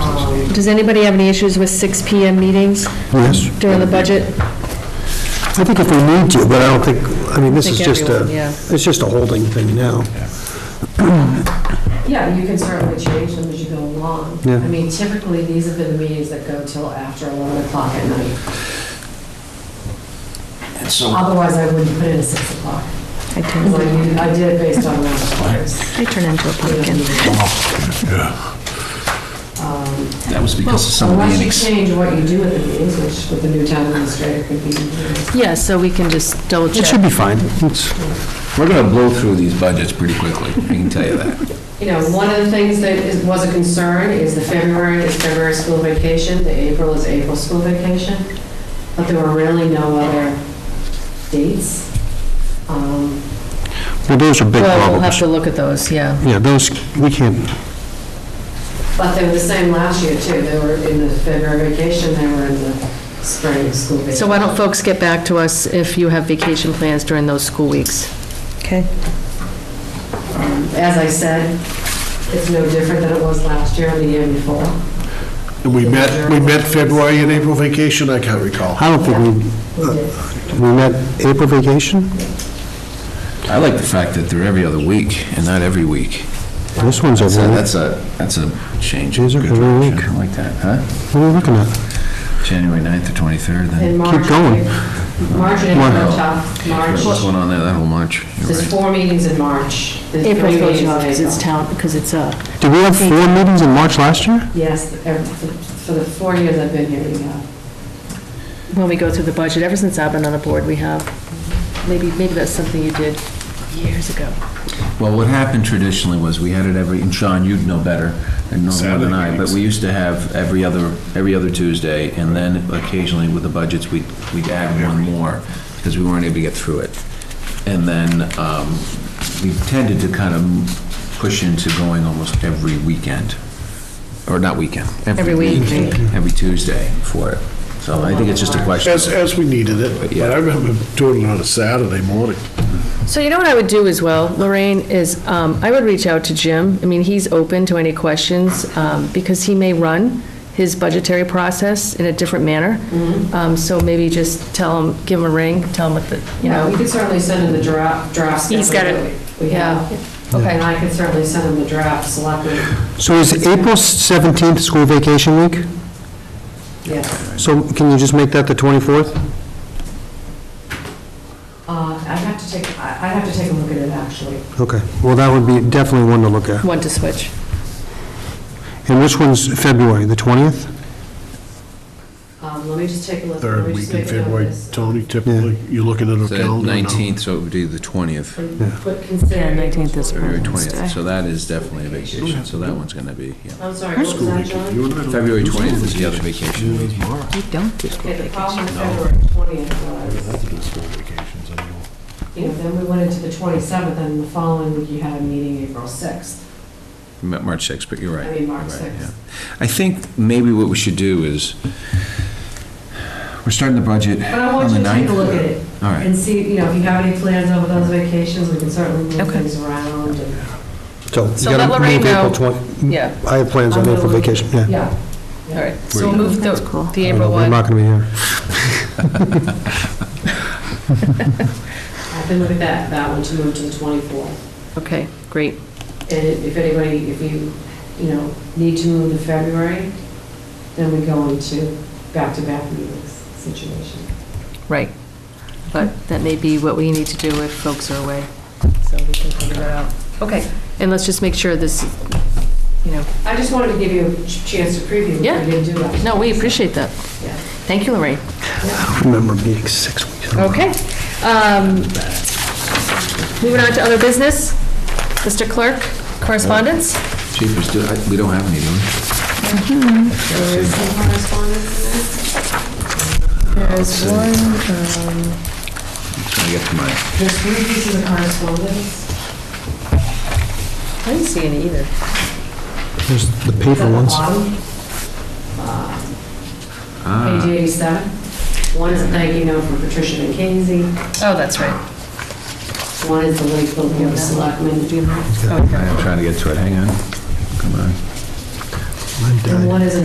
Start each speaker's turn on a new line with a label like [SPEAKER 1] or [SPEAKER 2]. [SPEAKER 1] Does anybody have any issues with 6 PM meetings
[SPEAKER 2] Yes,
[SPEAKER 1] during the budget?
[SPEAKER 2] I think if we need to, but I don't think, I mean, this
[SPEAKER 1] I
[SPEAKER 2] is
[SPEAKER 1] think
[SPEAKER 2] just a,
[SPEAKER 1] everyone, yeah.
[SPEAKER 2] it's just a holding thing now.
[SPEAKER 3] Yeah, you can certainly change them as you go along.
[SPEAKER 2] Yeah.
[SPEAKER 3] I mean, typically, these have been the meetings that go till after 11 o'clock at night.
[SPEAKER 4] And so,
[SPEAKER 3] Otherwise, I wouldn't put in a 6 o'clock.
[SPEAKER 1] I
[SPEAKER 3] Because I
[SPEAKER 1] turn,
[SPEAKER 3] did- I did it based on last year's.
[SPEAKER 1] I turn into a pumpkin.
[SPEAKER 4] Oh,
[SPEAKER 3] Um,
[SPEAKER 4] that was because of some of the
[SPEAKER 3] Unless you
[SPEAKER 4] annex.
[SPEAKER 3] change what you do at the meetings, which with the new town administrator could be.
[SPEAKER 1] Yeah, so we can just double
[SPEAKER 2] It
[SPEAKER 1] check.
[SPEAKER 2] should be fine. It's,
[SPEAKER 4] We're going to blow through these budgets pretty quickly, I can tell you that.
[SPEAKER 3] You know, one of the things that is- was a concern is the February is February school vacation, the April is April school vacation, but there were really no other dates. Um,
[SPEAKER 2] well, those are big
[SPEAKER 1] Well, we'll have
[SPEAKER 2] problems.
[SPEAKER 1] to look at those, yeah.
[SPEAKER 2] Yeah, those, we can't,
[SPEAKER 3] But they were the same last year too. They were in the February vacation, they were in the spring school vacation.
[SPEAKER 1] So why don't folks get back to us if you have vacation plans during those school weeks? Okay.
[SPEAKER 3] Um, As I said, it's no different than it was last year or the year before.
[SPEAKER 5] We met, we met February and April vacation, I can't recall.
[SPEAKER 2] I don't think
[SPEAKER 3] We did.
[SPEAKER 2] we, we met April vacation?
[SPEAKER 4] I like the fact that they're every other week and not every week.
[SPEAKER 2] This one's
[SPEAKER 4] So
[SPEAKER 2] every, what
[SPEAKER 4] that's a, that's a change.
[SPEAKER 2] These are
[SPEAKER 4] Good
[SPEAKER 2] every
[SPEAKER 4] direction.
[SPEAKER 2] week.
[SPEAKER 4] I like that, huh?
[SPEAKER 2] are we looking at?
[SPEAKER 4] January 9th to 23rd,
[SPEAKER 3] In
[SPEAKER 4] then.
[SPEAKER 3] March.
[SPEAKER 2] going.
[SPEAKER 3] March and April
[SPEAKER 4] Wow.
[SPEAKER 3] are tough.
[SPEAKER 4] What's
[SPEAKER 3] March,
[SPEAKER 4] going on there, that whole March? You're
[SPEAKER 3] there's
[SPEAKER 4] right.
[SPEAKER 3] four meetings in March. There's three
[SPEAKER 1] April
[SPEAKER 3] meetings
[SPEAKER 1] goes
[SPEAKER 3] in
[SPEAKER 1] up because it's
[SPEAKER 3] April.
[SPEAKER 1] town, because it's uh
[SPEAKER 2] Did we have four meetings in March last year?
[SPEAKER 3] Yes, every- for the four years I've been here, we have.
[SPEAKER 1] when we go through the budget, ever since I've been on the board, we have, maybe, maybe that's something you did years ago.
[SPEAKER 4] Well, what happened traditionally was we had it every, and Sean, you'd know better and know more than
[SPEAKER 5] Saturday
[SPEAKER 4] I, but
[SPEAKER 5] meetings.
[SPEAKER 4] we used to have every other, every other Tuesday, and then occasionally with the budgets, we'd, we'd add one more, because we weren't able to get through it. And then um, we tended to kind of push into going almost every weekend, or not weekend,
[SPEAKER 1] Every
[SPEAKER 4] every
[SPEAKER 1] week.
[SPEAKER 4] week, every Tuesday for it. So I think it's just a question.
[SPEAKER 5] As, as we needed it, but I remember doing it on a Saturday morning.
[SPEAKER 1] So you know what I would do as well, Lorraine, is um, I would reach out to Jim. I mean, he's open to any questions um, because he may run his budgetary process in a different manner. Um, So maybe just tell him, give him a ring, tell him what the, you
[SPEAKER 3] Yeah, we
[SPEAKER 1] know,
[SPEAKER 3] could certainly send him the draft, drafts.
[SPEAKER 1] He's got it.
[SPEAKER 3] that we- We have.
[SPEAKER 1] Okay.
[SPEAKER 3] And I could certainly send him the draft, selectmen,
[SPEAKER 2] So is April 17th school vacation week?
[SPEAKER 3] yes.
[SPEAKER 2] So can you just make that the 24th?
[SPEAKER 3] Uh, I'd have to take, I- I'd have to take a look at it, actually.
[SPEAKER 2] Okay, well, that would be definitely one to look at.
[SPEAKER 1] want to switch.
[SPEAKER 2] And which one's February, the 20th?
[SPEAKER 3] Um, Let me just take a look. Let
[SPEAKER 5] Third
[SPEAKER 3] me
[SPEAKER 5] week
[SPEAKER 3] just
[SPEAKER 5] in
[SPEAKER 3] make a note of
[SPEAKER 5] February,
[SPEAKER 3] this.
[SPEAKER 5] Tony, typically, you're looking at a
[SPEAKER 4] So
[SPEAKER 5] calendar now.
[SPEAKER 4] 19th, so it would be the 20th.
[SPEAKER 3] And
[SPEAKER 2] Yeah.
[SPEAKER 3] But considering.
[SPEAKER 1] Yeah, 19th is
[SPEAKER 4] February
[SPEAKER 1] Wednesday.
[SPEAKER 4] 20th, so that is definitely a vacation, so that one's going to be, yeah.
[SPEAKER 3] I'm sorry, what was that, John?
[SPEAKER 4] February 20th is the other vacation.
[SPEAKER 1] We don't do school
[SPEAKER 3] Okay, the
[SPEAKER 1] vacation.
[SPEAKER 3] problem with February 20th was, you know, then we went into the 27th, and the following week you had a meeting April 6th.
[SPEAKER 4] Ma- March 6th, but you're right.
[SPEAKER 3] I mean, March
[SPEAKER 4] You're right,
[SPEAKER 3] 6th.
[SPEAKER 4] yeah. I think maybe what we should do is, we're starting the budget
[SPEAKER 3] But I
[SPEAKER 4] on
[SPEAKER 3] want
[SPEAKER 4] the
[SPEAKER 3] you to take
[SPEAKER 4] 9th.
[SPEAKER 3] a look at it
[SPEAKER 4] All right,
[SPEAKER 3] and see, you know, if you have any plans over those vacations, we can certainly move
[SPEAKER 1] Okay.
[SPEAKER 3] things around. and-
[SPEAKER 2] So you
[SPEAKER 1] So
[SPEAKER 2] gotta
[SPEAKER 1] let Lorraine
[SPEAKER 2] move April
[SPEAKER 1] know.
[SPEAKER 2] 20
[SPEAKER 1] Yeah,
[SPEAKER 2] I have plans on
[SPEAKER 3] I'm gonna
[SPEAKER 2] April
[SPEAKER 3] look-
[SPEAKER 2] vacation, yeah.
[SPEAKER 3] Yeah.
[SPEAKER 1] all right. So
[SPEAKER 4] Where
[SPEAKER 1] we'll
[SPEAKER 4] you
[SPEAKER 1] move the, the
[SPEAKER 2] I know,
[SPEAKER 1] April
[SPEAKER 2] I'm
[SPEAKER 1] one.
[SPEAKER 2] not gonna be here.
[SPEAKER 3] I can look at that, that one to move to the 24th.
[SPEAKER 1] Okay, great.
[SPEAKER 3] And if anybody, if you, you know, need to move to February, then we go into back-to-back meetings situation.
[SPEAKER 1] Right. But that may be what we need to do if folks are away. So we can figure that out. Okay. And let's just make sure this, you know,
[SPEAKER 3] I just wanted to give you a ch- chance to preview what
[SPEAKER 1] Yeah.
[SPEAKER 3] we did do last.
[SPEAKER 1] no, we appreciate that.
[SPEAKER 3] Yeah.
[SPEAKER 1] Thank you, Lorraine.
[SPEAKER 2] Remember being six weeks. in a row.
[SPEAKER 1] Okay. Um, Moving on to other business. Mr. Clerk, correspondence?
[SPEAKER 4] chief, we still- I- we don't have any, do we?
[SPEAKER 3] There is some correspondence in there.
[SPEAKER 1] There's um, one.
[SPEAKER 4] Trying to get to my,
[SPEAKER 3] There's three pieces of correspondence.
[SPEAKER 1] I didn't see any either.
[SPEAKER 2] There's the
[SPEAKER 3] It's at
[SPEAKER 2] paper
[SPEAKER 3] the
[SPEAKER 2] ones.
[SPEAKER 3] bottom. Uh, Page 87. One is a thank you note from Patricia McKenzie.
[SPEAKER 1] Oh, that's right.
[SPEAKER 3] One is the Lakeville Board of Selectmen.
[SPEAKER 1] Okay.
[SPEAKER 4] I am trying to get to it, hang on. Come on.
[SPEAKER 2] I'm dead.
[SPEAKER 3] And one is a